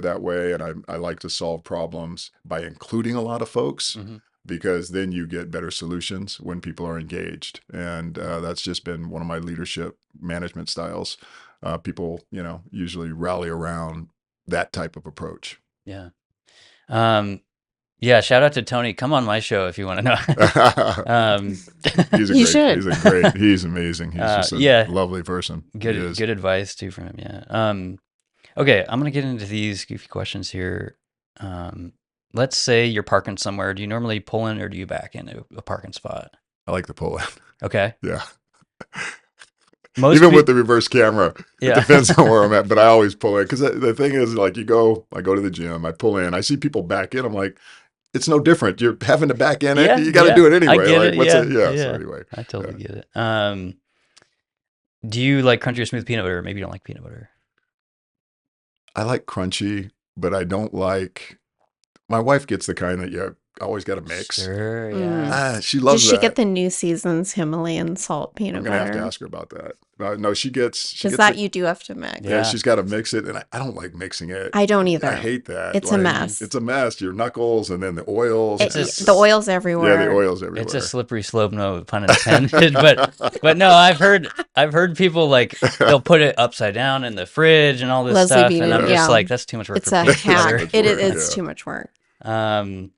that way. And I, I like to solve problems by including a lot of folks Mhm. because then you get better solutions when people are engaged. And uh, that's just been one of my leadership management styles. Uh, people, you know, usually rally around that type of approach. Yeah. Um, yeah. Shout out to Tony. Come on my show if you want to know. um, he's a You great, should. he's a great, he's amazing. He's Uh, just a yeah. lovely person. He good is. good advice too from him. Yeah. Um, okay, I'm gonna get into these goofy questions here. Um, let's say you're parking somewhere. Do you normally pull in or do you back into a parking spot? I like the pull in. Okay. Yeah. Most Even peop- with the reverse camera, yeah. It depends on where I'm at, but I always pull in because the, the thing is, like, you go, I go to the gym, I pull in, I see people back in, I'm like, it's no different. You're having to back in Yeah, it. You got to yeah. do it anyway. get like, it, what's yeah, it? Yeah. yeah. So anyway, I totally get it. Um, do you like crunchy or smooth peanut butter? Maybe you don't like peanut butter. I like crunchy, but I don't like. My wife gets the kind that you always got to mix. Sure. Yeah. Mm. Ah, she Does loves she that. get the new season's Himalayan salt I'm peanut gonna have butter? to ask her about that. No, no she gets. She Because gets that it- you do have to mix. yeah, Yeah. she's got to mix it, and I, I don't like mixing it. I don't either. I hate that. It's a Like, mess. It's a mess. Your knuckles, and then the oils. It- and It's a- the oil's everywhere. Yeah, the oils everywhere. It's a slippery slope, no pun intended. but but no, I've heard I've heard people like they'll put it upside down in the fridge and all this Leslie stuff, Bean, and I'm yeah. just like, that's too much work It's for a peanut butter. hack. It's It, it, work, it's yeah. too much work. Um,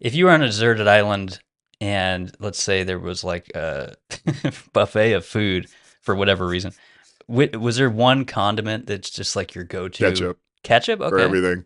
if you were on a deserted island and let's say there was like a buffet of food for whatever reason, wi- was there one condiment that's just like your go-to? ketchup Ketchup. Okay. for everything.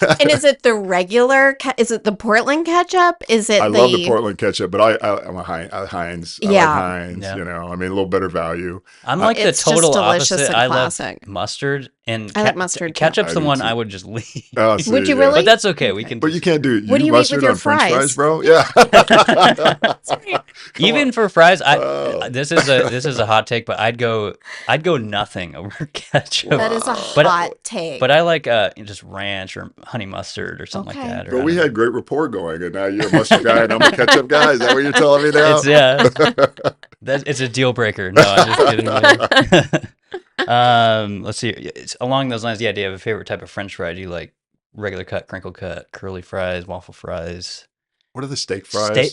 And is it the regular? Ke- is it the Portland ketchup? Is it I the, love the Portland ketchup, but I, I I'm a Heinz. I Heinz. I like Yeah. Heinz. Yeah. You know, I mean, a little better value. I'm Uh, like the It's just total delicious opposite. and I love classic. mustard and I like mustard too. Ketchup's I the do one too. I would just leave. Uh, see, Would you yeah. really? But that's okay. We Okay. can. But you just- can't do. You What do you eat with mustard your on French fries? fries, bro? Yeah. Come even on. for fries, I Oh. this is a this is a hot take, but I'd go I'd go nothing over ketchup. That is a But- hot take. But I like uh just ranch or honey mustard or something Okay. like that. or I But we don't had great rapport going, and now you're a mustard guy, and I'm a ketchup guy. Is that what you're telling me know. now? it's yeah. That's it's a deal breaker. No, I'm just kidding. um, let's see. It's along those lines. Yeah, do you have a favorite type of French fry? Do you like regular cut, crinkle cut, curly fries, waffle fries? What are the steak fries? Steak-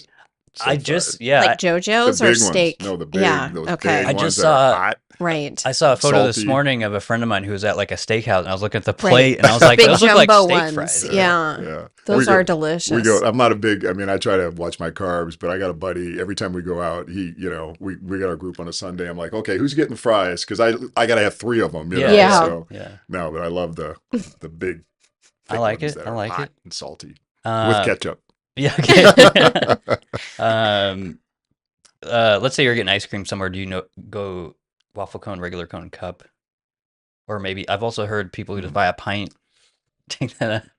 Steak I fries. just yeah. I- like JoJo's the or big steak? Ones. No, the big. yeah. Those okay. Big I ones just that are saw- Hot. right. I saw a photo this Salty. morning of a friend of mine who was at like a steakhouse, and I was looking at the Right. plate, and I was like, Big "Those look like jumbo steak ones. fries." Yeah. Yeah. Those We are go- delicious. We go. I'm not a big. I mean, I try to watch my carbs, but I got a buddy. Every time we go out, he, you know, we we got our group on a Sunday. I'm like, okay, who's getting fries? Because I I gotta have three of them. You know? Yeah. So yeah. no, but I love the the big. I thick like ones it. that I are like hot it. and salty Uh, with ketchup. Yeah. Okay. um, uh, let's say you're getting ice cream somewhere. Do you know go waffle cone, regular cone, cup, or maybe I've also heard people who Mm. just buy a pint. Take that. Out.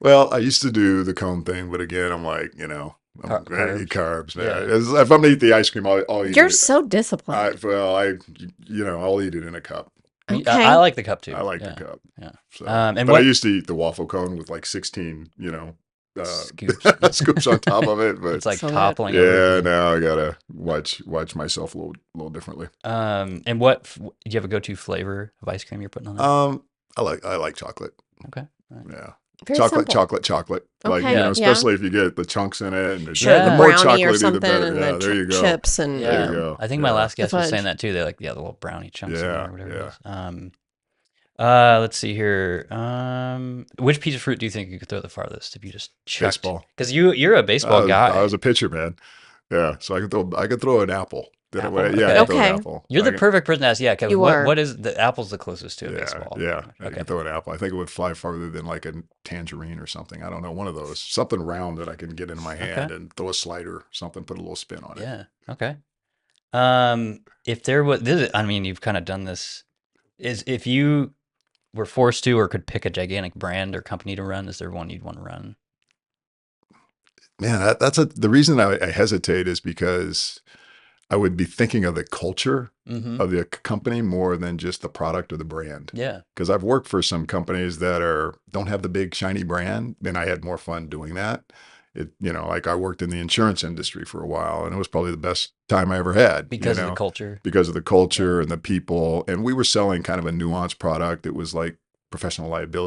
well, I used to do the cone thing, but again, I'm like, you know, I'm Car- gonna eat carbs. man. Yeah. It's- If I'm gonna eat the ice cream, I'll, I'll eat You're it. so I, disciplined. well, I you know, I'll eat it in a cup. I- okay. I, like the cup too. I like yeah. the cup. yeah. So, Um, and but I what used to eat the waffle cone with like 16, you know, uh, scoops? scoops on top of it. But It's like So that- toppling. yeah, over. now I gotta watch watch myself a little little differently. Um, and what f- do you have a go-to flavor of ice cream you're putting on? There? Um, I like I like chocolate. Okay, all Yeah, Very chocolate, simple. chocolate, chocolate. Like you Okay, know, yeah. especially if you get the chunks in it and the, Sure, the Yeah. more brownie or chocolatey, the something, better. and Yeah, the there you chi- go. chips and There Yeah. you go. I think my Yeah. last guest was fudge. saying that too. They're like, yeah, the little brownie chunks in there Yeah, or whatever it yeah. is. Um, uh, let's see here. Um, which piece of fruit do you think you could throw the farthest if you just checked? baseball. Because you you're a I baseball was, guy. I was a pitcher, man. Yeah, so I could throw I could throw an apple. Did Apple? I, yeah, I could throw an Okay. apple. you're I the could- perfect person to ask. Yeah, because You what, are. what is the apple's the closest to a baseball? Yeah, I Okay. can throw an apple. I think it would fly farther than like a tangerine or something. I don't know, one of those, something round that I can get in my hand and throw a slider, something, put a little spin on it. Yeah. Okay. Um, if there was this, is- I mean, you've kind of done this. Is if you were forced to or could pick a gigantic brand or company to run, is there one you'd want to run? Man, that, that's a, the reason I, I hesitate is because I would be thinking of the culture Mm-hmm. of the c- company more than just the product or the brand. Yeah. Because I've worked for some companies that are don't have the big shiny brand, and I had more fun doing that. It, you know, like I worked in the insurance industry for a while, and it was probably the best time I ever had you Because of know? the culture. because of the culture and the people. And we were selling kind of a nuanced product. It was like professional liability.